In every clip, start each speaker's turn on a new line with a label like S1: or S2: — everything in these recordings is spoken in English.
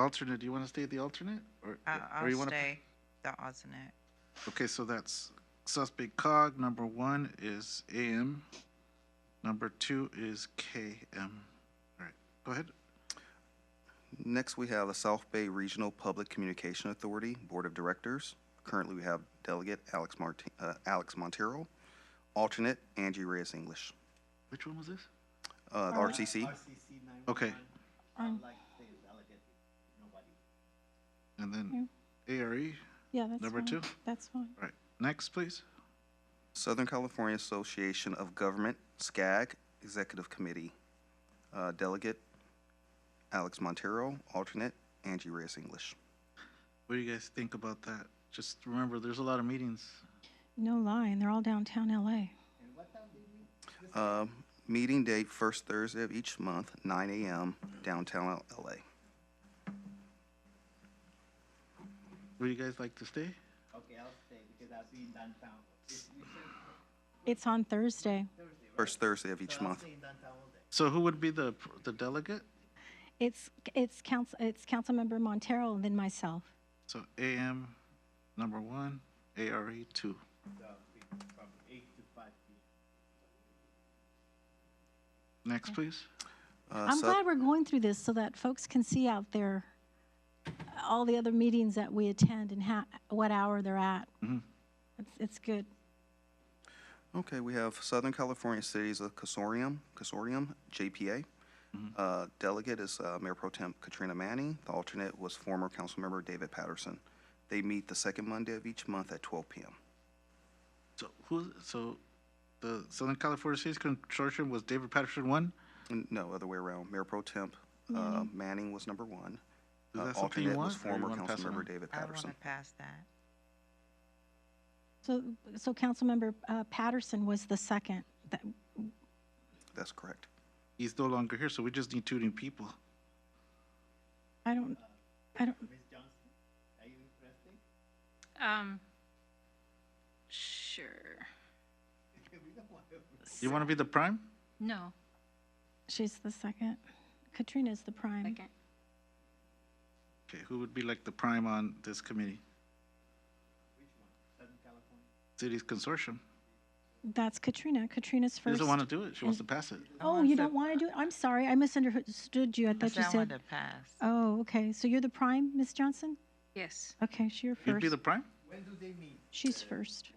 S1: Alternate, do you want to stay the alternate? or
S2: I-
S1: or you
S2: Uh, I'll
S1: wanna-
S2: stay the alternate.
S1: Okay, so that's suspect cog. Number one is AM. Number two is KM. All right, go ahead.
S3: Next, we have the South Bay Regional Public Communication Authority Board of Directors. Currently, we have Delegate Alex Marti- uh, Alex Montero, alternate Angie Reyes English,
S1: Which one was this?
S3: uh, RCC.
S1: Okay,
S4: Um,
S1: and then ARE.
S4: yeah, that's
S1: Number
S4: fine.
S1: two?
S4: That's fine.
S1: All right, next, please.
S3: Southern California Association of Government, SCAG, Executive Committee, uh, Delegate Alex Montero, alternate Angie Reyes English.
S1: What do you guys think about that? Just remember, there's a lot of meetings.
S4: No lying, they're all downtown LA.
S3: Um, Meeting date, first Thursday of each month, 9 a.m., downtown LA.
S1: Would you guys like to stay?
S5: Okay, I'll stay because I'll be in downtown. If you say
S4: It's on Thursday.
S5: Thursday, right?
S3: First Thursday of each
S5: So I'll
S3: month.
S5: stay in downtown all day.
S1: So who would be the, the delegate?
S4: It's it's council it's Councilmember Montero and then myself.
S1: So AM, number one, ARE, two.
S5: So I'll be from eight to five P M.
S1: Next, please.
S3: Uh,
S4: I'm
S3: Sou-
S4: glad we're going through this so that folks can see out there uh, all the other meetings that we attend and ha- what hour they're at.
S1: Mm-hmm.
S4: It's it's good.
S3: Okay, we have Southern California Cities of Consortium, Consortium, JPA.
S1: Mm-hmm.
S3: Uh, Delegate is uh, Mayor Pro Temp Katrina Manning. The alternate was former Councilmember David Patterson. They meet the second Monday of each month at 12 p.m.
S1: So who, so the Southern California Cities Consortium was David Patterson one?
S3: N- No, other way around. Mayor Pro Temp uh,
S2: Mm-hmm.
S3: Manning was number one.
S1: Is
S3: Uh,
S1: that something you want?
S3: alternate was
S1: or you
S3: former
S1: wanna pass it on?
S3: Councilmember David
S2: I want
S3: Patterson.
S2: to pass that.
S4: So so Councilmember uh, Patterson was the second. That,
S3: That's correct.
S1: He's no longer here, so we just need two new people.
S4: I don't I don't
S5: Ms. Johnson, are you interested?
S6: Um, sure.
S5: We don't want to-
S1: You want to be the prime?
S6: No.
S4: she's the second. Katrina's the prime.
S6: Second.
S1: Okay, who would be like the prime on this committee?
S5: Southern California.
S1: Cities Consortium.
S4: That's Katrina. Katrina's
S1: She
S4: first.
S1: doesn't want to do it. She wants to pass it.
S4: Oh, you don't want to do it? I'm sorry. I misunderstood you. I
S2: I
S4: thought you
S2: said I wanted
S4: said.
S2: to pass.
S4: Oh, okay. So you're the prime, Miss Johnson?
S6: Yes.
S4: Okay, so you're
S1: You'd
S4: first.
S1: be the prime?
S5: When do they meet?
S4: She's first.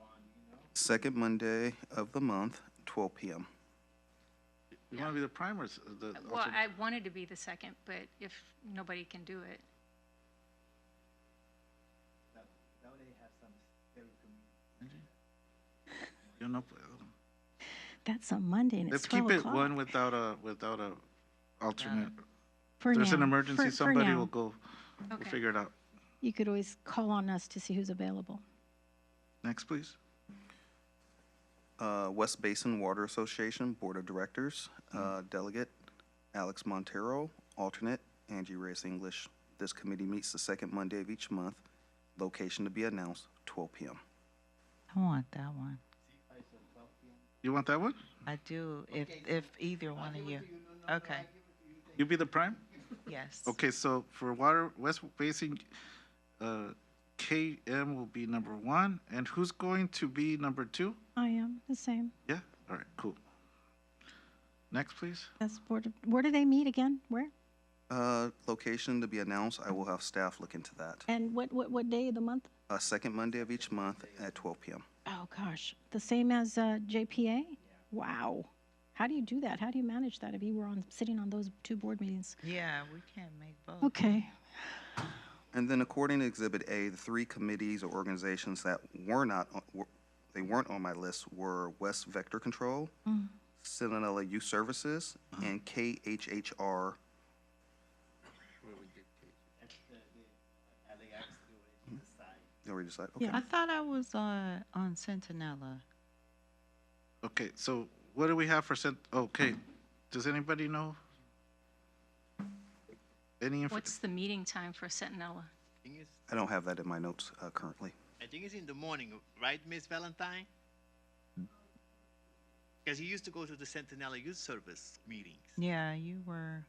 S3: Second Monday of the month, 12 p.m.
S1: You want to be the prime or s- the
S6: Well,
S1: alternate?
S6: I wanted to be the second, but if nobody can do it,
S5: That, that way they have some very community.
S1: You know,
S4: That's on Monday and it's
S1: let's
S4: 12
S1: keep it
S4: o'clock.
S1: one without a, without a alternate.
S4: for
S1: If there's an
S4: now.
S1: emergency,
S4: For- for
S1: somebody
S4: now.
S1: will go, we'll
S6: Okay.
S1: figure it out.
S4: You could always call on us to see who's available.
S1: Next, please.
S3: Uh, West Basin Water Association Board of Directors, uh, Delegate Alex Montero, Alternate Angie Reyes English. This committee meets the second Monday of each month. Location to be announced, 12 p.m.
S2: I want that one.
S1: You want that one?
S2: I do, if, if either one of you. Okay,
S1: You be the prime?
S2: yes.
S1: Okay, so for water, West Basin, uh, KM will be number one, and who's going to be number two?
S4: I am the same.
S1: Yeah, all right, cool. Next, please.
S4: That's board. Of, where do they meet again? Where?
S3: Uh, Location to be announced, I will have staff look into that.
S4: And what, what, what day of the month?
S3: Uh, Second Monday of each month at 12 p.m.
S4: Oh, gosh. The same as uh, JPA? Wow. How do you do that? How do you manage that if you were on sitting on those two board meetings?
S2: Yeah, we can't make both.
S4: Okay.
S3: And then according to Exhibit A, the three committees or organizations that were not, on- were- they weren't on my list were West Vector Control, Centinela Youth Services, and KHHR
S5: I think I have to do it on the side.
S3: No, we decide,
S4: Yeah.
S3: okay.
S2: I thought I was on, on Centinela.
S1: Okay, so what do we have for cent, okay, does anybody know? Any, inf-
S6: what's the meeting time for Sentinella?
S5: Thing is,
S3: I don't have that in my notes uh, currently.
S5: I think it's in the morning, right, Miss Valentine? Because you used to go to the Centinela Youth Service meetings.
S7: Yeah, you were